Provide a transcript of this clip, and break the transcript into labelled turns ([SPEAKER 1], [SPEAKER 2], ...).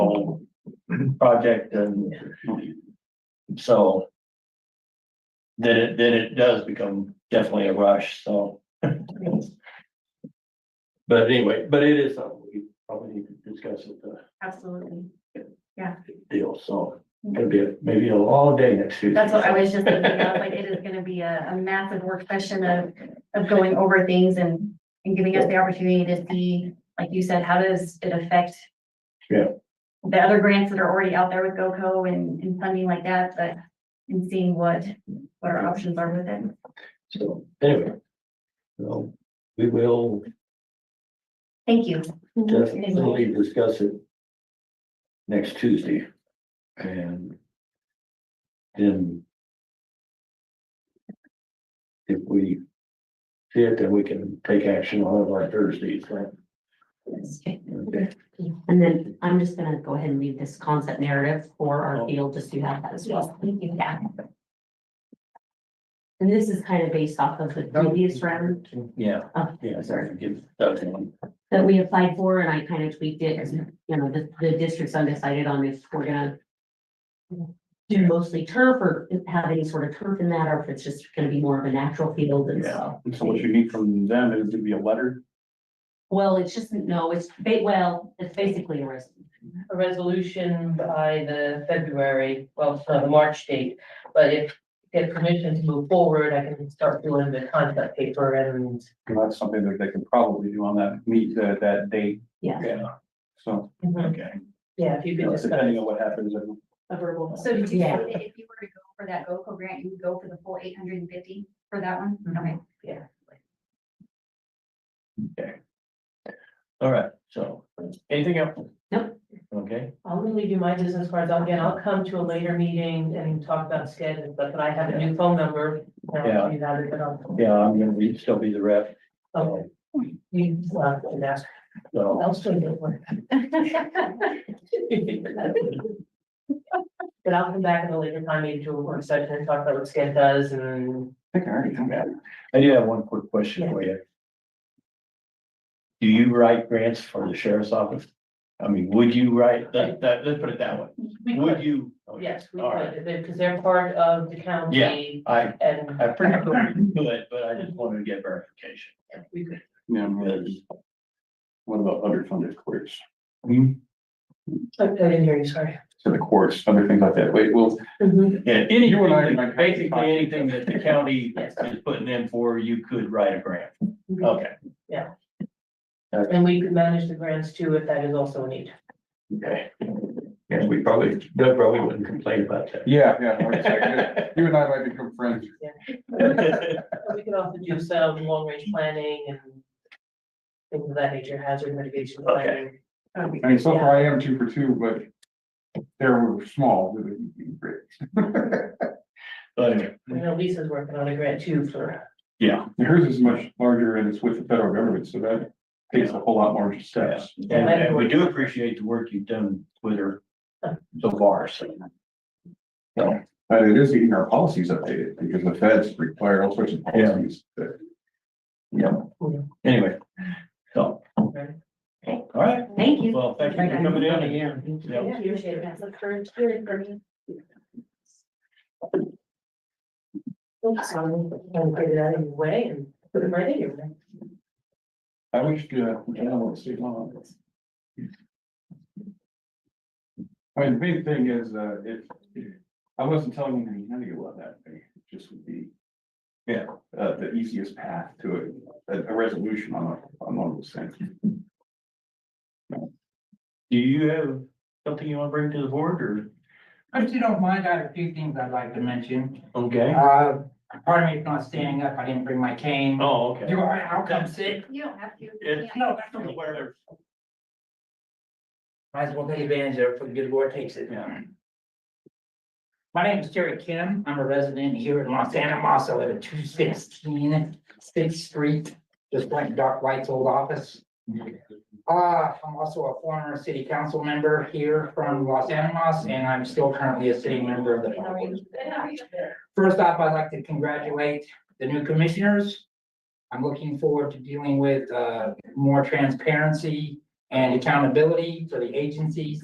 [SPEAKER 1] project and so then it, then it does become definitely a rush, so. But anyway, but it is something we probably need to discuss with the
[SPEAKER 2] Absolutely.
[SPEAKER 1] deal, so it's gonna be a- maybe a long day next Tuesday.
[SPEAKER 2] That's what I was just thinking of, like, it is gonna be a, a massive work session of, of going over things and, and giving us the opportunity to see, like you said, how does it affect
[SPEAKER 1] Yeah.
[SPEAKER 2] the other grants that are already out there with GOCO and, and funding like that, but, and seeing what, what our options are with it.
[SPEAKER 1] So anyway. So we will
[SPEAKER 2] Thank you.
[SPEAKER 1] definitely discuss it next Tuesday. And then if we see it, then we can take action on it on Thursdays, right?
[SPEAKER 3] Okay.
[SPEAKER 1] Okay.
[SPEAKER 3] And then I'm just gonna go ahead and leave this concept narrative for our
[SPEAKER 1] Oh.
[SPEAKER 3] field, just so you have that as well. Yeah. And this is kind of based off of the previous round
[SPEAKER 1] Yeah,
[SPEAKER 3] Oh.
[SPEAKER 1] yeah, sorry, give that one.
[SPEAKER 3] that we applied for, and I kind of tweaked it, as, you know, the, the district's undecided on if we're gonna do mostly turf or have any sort of turf in that, or if it's just gonna be more of a natural field and so.
[SPEAKER 4] And so what you need from them is to be a letter,
[SPEAKER 3] Well, it's just, no, it's, ba- well, it's basically a res-
[SPEAKER 5] a resolution by the February, well, so the March date. But if get permission to move forward, I can start doing the concept paper and
[SPEAKER 4] and that's something that they can probably do on that meet, that, that date,
[SPEAKER 3] yeah,
[SPEAKER 1] Yeah,
[SPEAKER 4] so.
[SPEAKER 1] okay.
[SPEAKER 5] yeah, if you
[SPEAKER 4] you
[SPEAKER 5] could
[SPEAKER 4] know,
[SPEAKER 5] just.
[SPEAKER 4] Depending on what happens, and
[SPEAKER 3] a verbal.
[SPEAKER 2] So did you say
[SPEAKER 3] Yeah.
[SPEAKER 2] that if you were to go for that GOCO grant, you would go for the full eight hundred and fifty for that one?
[SPEAKER 5] Mhm.
[SPEAKER 2] Okay.
[SPEAKER 5] Yeah.
[SPEAKER 1] All right, so anything else?
[SPEAKER 3] Nope.
[SPEAKER 1] Okay,
[SPEAKER 5] I'm gonna leave you my business cards. Again, I'll come to a later meeting and talk about schedules, but I have a new phone number.
[SPEAKER 1] Yeah.
[SPEAKER 5] Now you have it, but I'll,
[SPEAKER 1] yeah, I'm gonna be, still be the rep.
[SPEAKER 5] okay,
[SPEAKER 1] So,
[SPEAKER 5] you, uh, and ask,
[SPEAKER 1] so,
[SPEAKER 5] I'll still do But I'll come back at a later time, maybe to a work session and talk about what SCED does and
[SPEAKER 4] I think I already come back.
[SPEAKER 1] I do have one quick question for you. Do you write grants for the sheriff's office? I mean, would you write, that, that, let's put it that way,
[SPEAKER 5] We
[SPEAKER 1] would
[SPEAKER 5] could,
[SPEAKER 1] you? okay,
[SPEAKER 5] Oh, Yes, we
[SPEAKER 1] All right,
[SPEAKER 5] could, because they're part of the county
[SPEAKER 1] I,
[SPEAKER 5] and
[SPEAKER 1] I pretty much do it, but I just wanted to get verification.
[SPEAKER 5] we could.
[SPEAKER 4] Yeah, I'm ready. What about underfunded courts, Hmm?
[SPEAKER 5] I didn't hear you, sorry. Mm-hmm.
[SPEAKER 4] to the courts, other things like that, wait, well,
[SPEAKER 1] Yeah, anything,
[SPEAKER 4] You and I-
[SPEAKER 1] that- basically anything that the county
[SPEAKER 5] Yes.
[SPEAKER 1] is putting in for, you could write a grant,
[SPEAKER 5] Mhm.
[SPEAKER 1] okay,
[SPEAKER 5] And we could manage the grants too, if that is also a need.
[SPEAKER 1] okay. Yeah, we probably, Doug probably wouldn't complain about
[SPEAKER 4] yeah, yeah, like I said,
[SPEAKER 1] that.
[SPEAKER 4] you and I might become friends.
[SPEAKER 5] But we could also do some long range planning and things of that nature, hazard mitigation
[SPEAKER 1] Okay.
[SPEAKER 5] planning.
[SPEAKER 4] I mean, so far I am two for two, but there were small, but it'd be great.
[SPEAKER 1] But anyway,
[SPEAKER 5] I know Lisa's working on a grant too for,
[SPEAKER 4] Yeah. Hers is much larger and it's with the federal government, so that takes a whole lot larger steps.
[SPEAKER 1] And, and we do appreciate the work you've done with her so far, so.
[SPEAKER 4] But it is getting our policies updated because the feds require all sorts of
[SPEAKER 1] Yeah.
[SPEAKER 4] policies that.
[SPEAKER 1] Anyway, so. All right,
[SPEAKER 3] Thank you.
[SPEAKER 1] well, thank you for coming in. Yeah.
[SPEAKER 5] appreciate it.
[SPEAKER 3] That's a current hearing for me.
[SPEAKER 5] so I'm gonna get it out of your way and put it right in your way.
[SPEAKER 4] I wish, uh, I don't want to see long. I mean, the big thing is, uh, if, I wasn't telling you anything about that, thing. it just would be.
[SPEAKER 1] Yeah.
[SPEAKER 4] Uh, the easiest path to a, a, a resolution on, a- on one of those things.
[SPEAKER 1] Do you have something you want to bring to the board or?
[SPEAKER 6] If you don't mind, I have a few things I'd like to mention.
[SPEAKER 1] Okay.
[SPEAKER 6] Uh, pardon me if not standing up, I didn't bring my cane.
[SPEAKER 1] Oh, okay.
[SPEAKER 6] Do I, how come sick?
[SPEAKER 2] You don't have to.
[SPEAKER 1] It-
[SPEAKER 2] Yeah.
[SPEAKER 6] No, that's okay.
[SPEAKER 1] Whatever.
[SPEAKER 6] Might as well take advantage of it for the good Lord takes it.
[SPEAKER 1] Yeah.
[SPEAKER 6] My name is Terry Kim. I'm a resident here in Los Animas. I live at 216 6th street, just like Doc White's old office. Uh, I'm also a former city council member here from Los Animas, and I'm still currently a city member of the. Park Board. First off, I'd like to congratulate the new commissioners. I'm looking forward to dealing with uh, more transparency and accountability for the agencies